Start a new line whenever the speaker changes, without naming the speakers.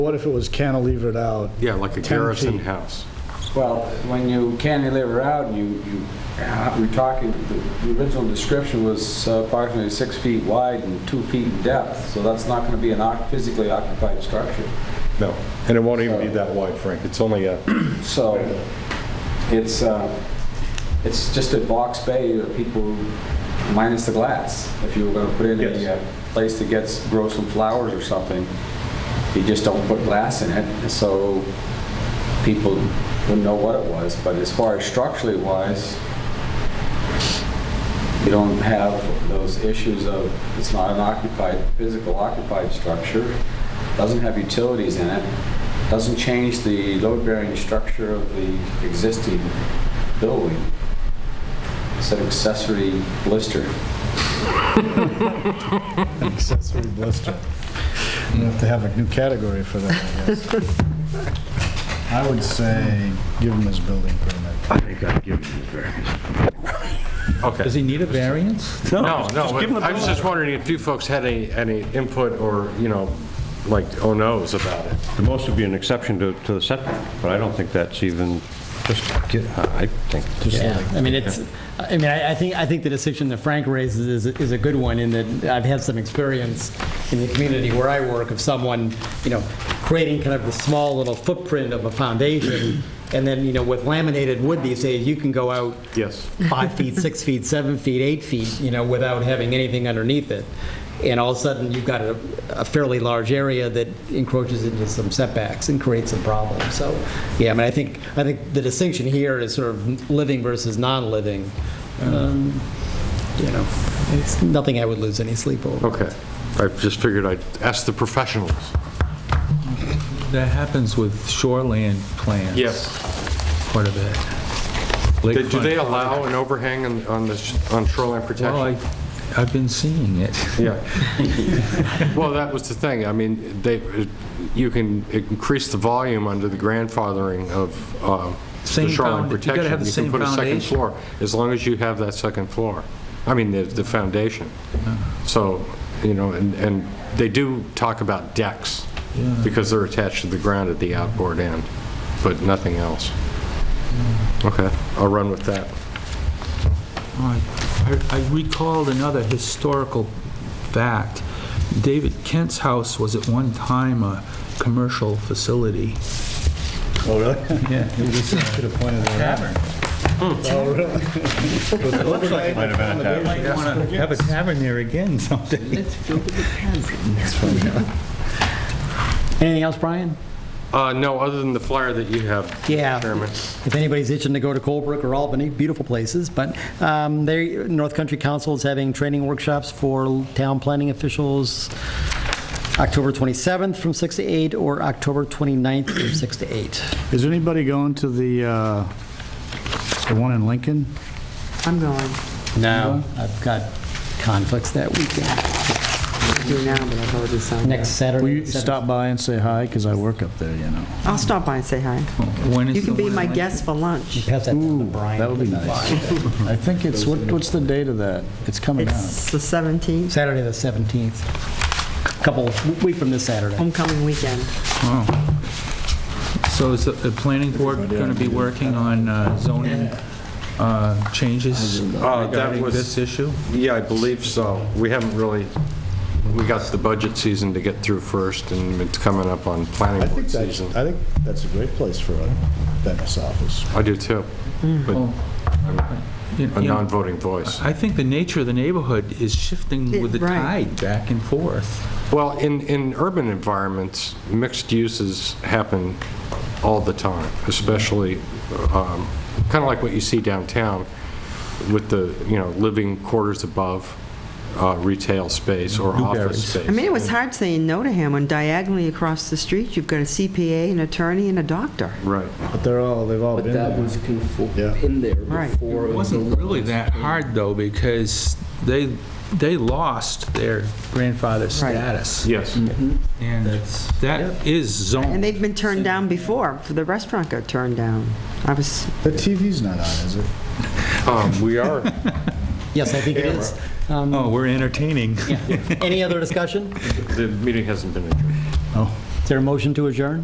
What if it was cantilevered out?
Yeah, like a
10
garrison
feet?
house.
Well, when you cantilever out, you, you, uh, we're talking, the- the original description was uh, approximately six feet wide and two feet in depth, so that's not going to be an oc- physically occupied structure.
No, and it won't even be that wide, Frank. It's only a,
So it's, uh, it's just a box bay that people, minus the glass. If you were going to put in
Yes.
a uh, place that gets, grow some flowers or something, you just don't put glass in it, so people wouldn't know what it was. But as far as structurally wise, you don't have those issues of, it's not an occupied, physical occupied structure, doesn't have utilities in it, doesn't change the load-bearing structure of the existing building. It's an accessory blister.
An accessory blister. You have to have a new category for that, I guess. I would say give him his building permit.
okay.
Does he need a variance?
No, no, but I was just wondering if you folks had any, any input or, you know, like, oh no's about it.
The most would be an exception to, to the setback, but I don't think that's even, just, get- I think,
Yeah, I mean, it's, I mean, I I think, I think the decision that Frank raises is, is a good one in that I've had some experience in the community where I work of someone, you know, creating kind of the small little footprint of a foundation. And then, you know, with laminated wood these days, you can go out
Yes.
five feet, six feet, seven feet, eight feet, you know, without having anything underneath it. And all of a sudden, you've got a, a fairly large area that encroaches into some setbacks and creates some problems. So, yeah, I mean, I think, I think the distinction here is sort of living versus non-living. Um, You know, it's nothing I would lose any sleep over.
Okay. I just figured I'd ask the professionals.
That happens with shoreland plans. Quite a bit.
Did- Do they
Lakefront.
allow an overhang on, on the, sh- on shoreline protection?
Well, I, I've been seeing it.
Yeah. Well, that was the thing. I mean, they, you can increase the volume under the grandfathering of uh, the
Same
shoreline
found- you gotta
protection.
have the same
can put a second
foundation.
floor, as long as you have that second floor. I mean, the, the foundation. So, you know, and, and they do talk about decks, because they're attached to the ground at the outboard end, but nothing else. Okay, I'll run with that.
All right. I I recalled another historical fact. David Kent's house was at one time a commercial facility.
Oh, really?
Yeah, it was a
Should have pointed that out.
tavern.
Oh, really?
It looks like it might have been a tavern. Might want to have a tavern there again someday.
Anything else, Brian?
Uh, No, other than the flyer that you have,
Yeah.
Chairman.
If anybody's itching to go to Colebrook or Albany, beautiful places, but um, they, North Country Council is having training workshops for town planning officials October 27th from 6 to 8, or October 29th from 6 to 8.
Is anybody going to the, uh, the one in Lincoln?
I'm going.
No. I've got conflicts that weekend.
I do now, but I've already signed up.
Next Saturday.
Will you
Saturday.
stop by and say hi, because I work up there, you know?
I'll stop by and say hi.
When is
You
the
can be
one in
my
Lin-
guest for lunch.
Pass that down to
Ooh,
Brian.
that would be nice. I think it's, what, what's the date of that? It's coming up.
It's the 17th,
Saturday, the 17th. Couple, week from this Saturday.
homecoming weekend.
Oh. So is the the planning board going to be working on uh, zoning uh, changes
Uh, that
regarding
was-
this issue?
Yeah, I believe so. We haven't really, we got the budget season to get through first, and it's coming up on planning board season.
I think that's a great place for a dentist's office.
I do too, but I'm
You-
a
you know,
non-voting voice.
I think the nature of the neighborhood is shifting with the
Right.
tide back and forth.
Well, in, in urban environments, mixed uses happen all the time, especially, kind of like what you see downtown with the, you know, living quarters above uh, retail space or office
Newberries.
space.
I mean, it was hard saying no to him when diagonally across the street, you've got a CPA, an attorney, and a doctor.
Right.
But they're all, they've all
But
been
that
there.
was conform-
Yeah.
in there
Right.
before.
It wasn't really that hard, though, because they, they lost their grandfather
Right.
status.
Yes.
And that is
And
zoned.
they've been turned down before, for the restaurant got turned down. I was,
The TV's not on, is it?
Um, We are,
Yes, I think it is. Um,
Oh, we're entertaining.
Any other discussion?
the meeting hasn't been adjourned.
Oh.
It's there a motion to adjourn?